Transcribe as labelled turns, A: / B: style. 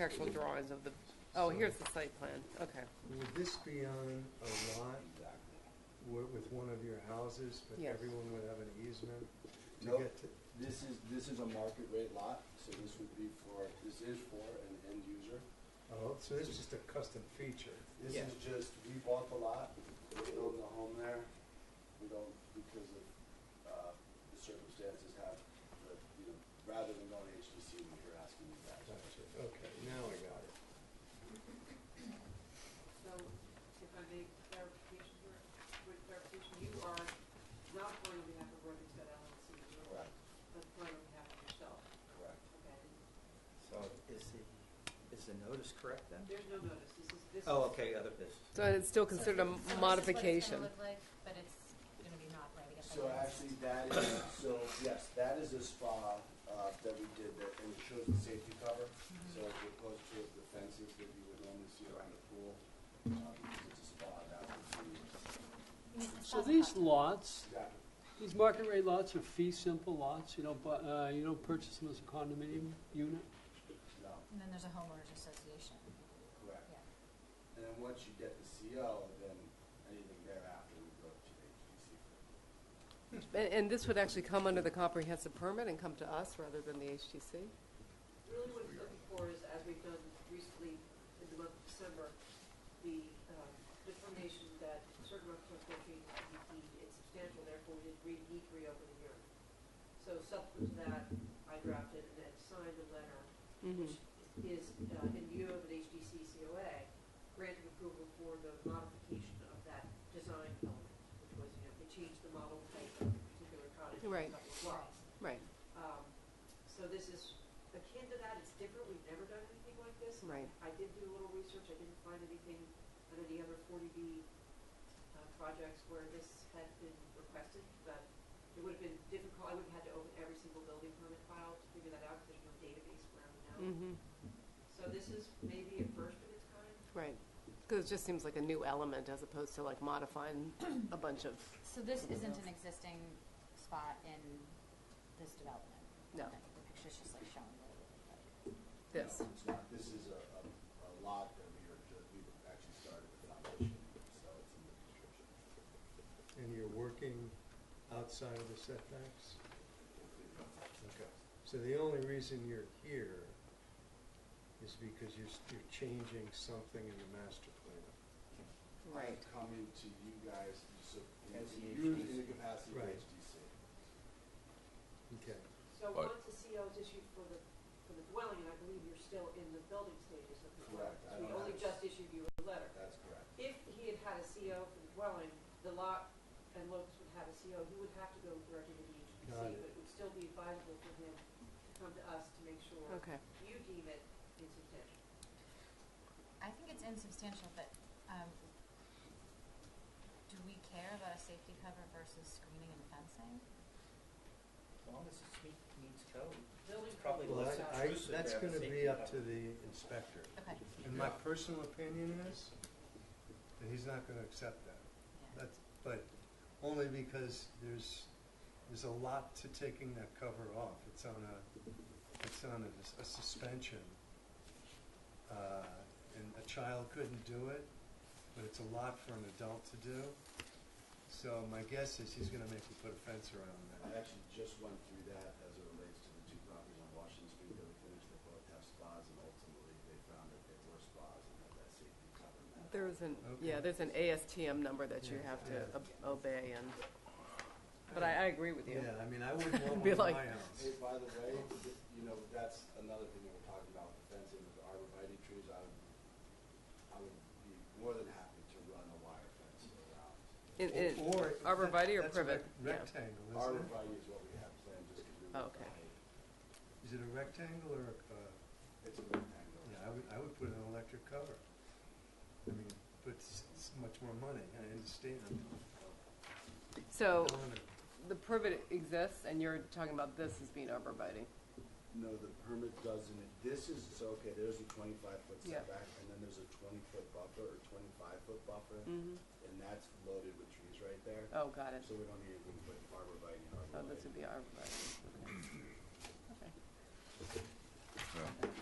A: Actual drawings of the, oh, here's the site plan, okay,
B: Would this be on a lot wi- with one of your houses, but
A: Yes.
B: everyone would have an easement to
C: Nope.
B: get to?
C: This is, this is a market rate lot, so this would be for, this is for an end user.
B: Oh, so this is just a custom feature.
C: This
A: Yeah.
C: is just, we bought the lot, we built the home there, we don't, because of, uh, the circumstances have, but, you know, rather than going HDC, we were asking you guys.
B: Gotcha. Okay, now I got it.
D: So, if I make clarification here, with clarification, you are not going on behalf of Worthington LLC, you are
C: Correct,
D: going on behalf of yourself,
C: correct.
D: okay?
E: So is the, is the notice correct then?
D: There's no notice, this is, this is.
E: Oh, okay, other business.
A: so it's still considered
F: So this is
A: a modification.
F: what it's gonna look like, but it's gonna be not right, I guess. I
C: So
F: guess.
C: actually, that is, so, yes, that is a spa, uh, that we did, that, and it shows the safety cover. So as opposed to the fences that you would normally see around the pool, uh, because it's a spa, that would be,
F: I mean, it's
G: So
F: not
G: these
F: possible.
G: lots,
C: exactly.
G: these market rate lots are fee simple lots, you don't, bu- uh, you don't purchase them as a condominium unit?
C: no,
F: And then there's a homeowners association,
C: correct.
F: yeah.
C: And then once you get the CO, then anything thereafter would go to the HDC.
A: And, and this would actually come under the comprehensive permit and come to us rather than the HTC?
D: Really what it's looking for is, as we've done recently in the month of December, the um, determination that certain residential locations to be deemed insubstantial, therefore we didn't read E three over the hearing. So subsequent to that, I drafted and then signed a letter
A: Mhm.
D: is, uh, in view of an HDC COA, granted approval for the modification of that design element, which was, you know, they changed the model type of a particular cottage. to a
A: Right.
D: couple of lots.
A: Right,
D: Um, so this is akin to that, it's different, we've never done anything like this.
A: right.
D: I did do a little research, I didn't find anything on any other forty B, uh, projects where this had been requested, but it would have been difficult, I would have had to open every single building permit file to figure that out, because there's no database around now.
A: Mm-hmm,
D: So this is maybe a first of its kind?
A: right. Because it just seems like a new element as opposed to like modifying a bunch of,
F: So this isn't an existing spot in this development?
A: No.
F: Okay, The picture's just like showing the.
A: this.
C: No, It's not, this is a, a, a lot that we are, ju- we've actually started the foundation, so it's in the description,
B: And you're working outside of the setbacks?
C: including
B: Okay. So the only reason you're here is because you're, s- you're changing something in the master plan.
A: Right.
C: coming to you guys, so,
E: As the
C: you're in the
E: HDC.
C: capacity of
B: Right.
C: HDC.
B: Okay.
D: So
H: But-
D: once the CO is issued for the, for the dwelling, and I believe you're still in the building stages of the dwelling.
C: Correct. I
D: So we
C: don't
D: only
C: have-
D: just issued you a letter.
C: That's correct.
D: If he had had a CO for the dwelling, the lot and Locust would have a CO, he would have to go directly to the HDC,
B: Got it.
D: but it would still be advisable for him to come to us to make sure
A: Okay,
D: you deem it insubstantial.
F: I think it's insubstantial, but, um, do we care about a safety cover versus screening and fencing?
E: As long as it meet- meets code.
D: Building
E: probably
D: code
B: Well,
E: less
D: is not-
B: I, I,
E: intrusive to
B: that's
E: have a
B: gonna be
E: safety
B: up to
E: cover.
B: the inspector.
F: Okay,
B: And my
H: Yeah.
B: personal opinion is that he's not gonna accept that.
F: yeah.
B: That's, but only because there's, there's a lot to taking that cover off. It's on a, it's on a, a suspension. Uh, and a child couldn't do it, but it's a lot for an adult to do. So my guess is he's gonna make me put a fence around
C: I
B: that.
C: actually just went through that as it relates to the two properties on Washington Street that we finished, they both have spas, and ultimately they found that they were spas and had that safety cover. and that-
A: there's an,
B: Okay.
A: yeah, there's an ASTM number that you
B: Yeah,
A: have to
B: yeah.
A: ob- obey and, but I, I agree with you.
B: Yeah, I mean, I wouldn't want
A: Be
B: one in my
A: like-
B: house.
C: Hey, by the way, th- you know, that's another thing that we're talking about with the fencing, with the arborvitae trees, I would, I would be more than happy to run a wire fence around.
A: In- in-
B: Or-
A: arborvitae or
B: that's a
A: privet,
B: rec-
A: yeah.
B: Rectangle, isn't it?
C: Arborvitae is what we have planned, just because we
A: Oh,
C: were.
A: Okay.
B: Is it a rectangle or, a- uh,
C: It's a rectangle.
B: yeah, I would, I would put an electric cover. I mean, but it's, it's much more money, I understand.
A: So Oh.
B: I don't wanna-
A: the privet exists and you're talking about this as being arborvitae.
C: No, the permit doesn't, this is, so, okay, there's a twenty-five foot
A: Yeah.
C: setback, and then there's a twenty-foot buffer, or twenty-five foot buffer,
A: Mm-hmm.
C: and that's loaded with trees right there.
A: Oh, got it.
C: So we don't need to put arborvitae and
A: Oh, this
C: arborvitae.
A: would be arborvitae. Okay.
H: Yeah.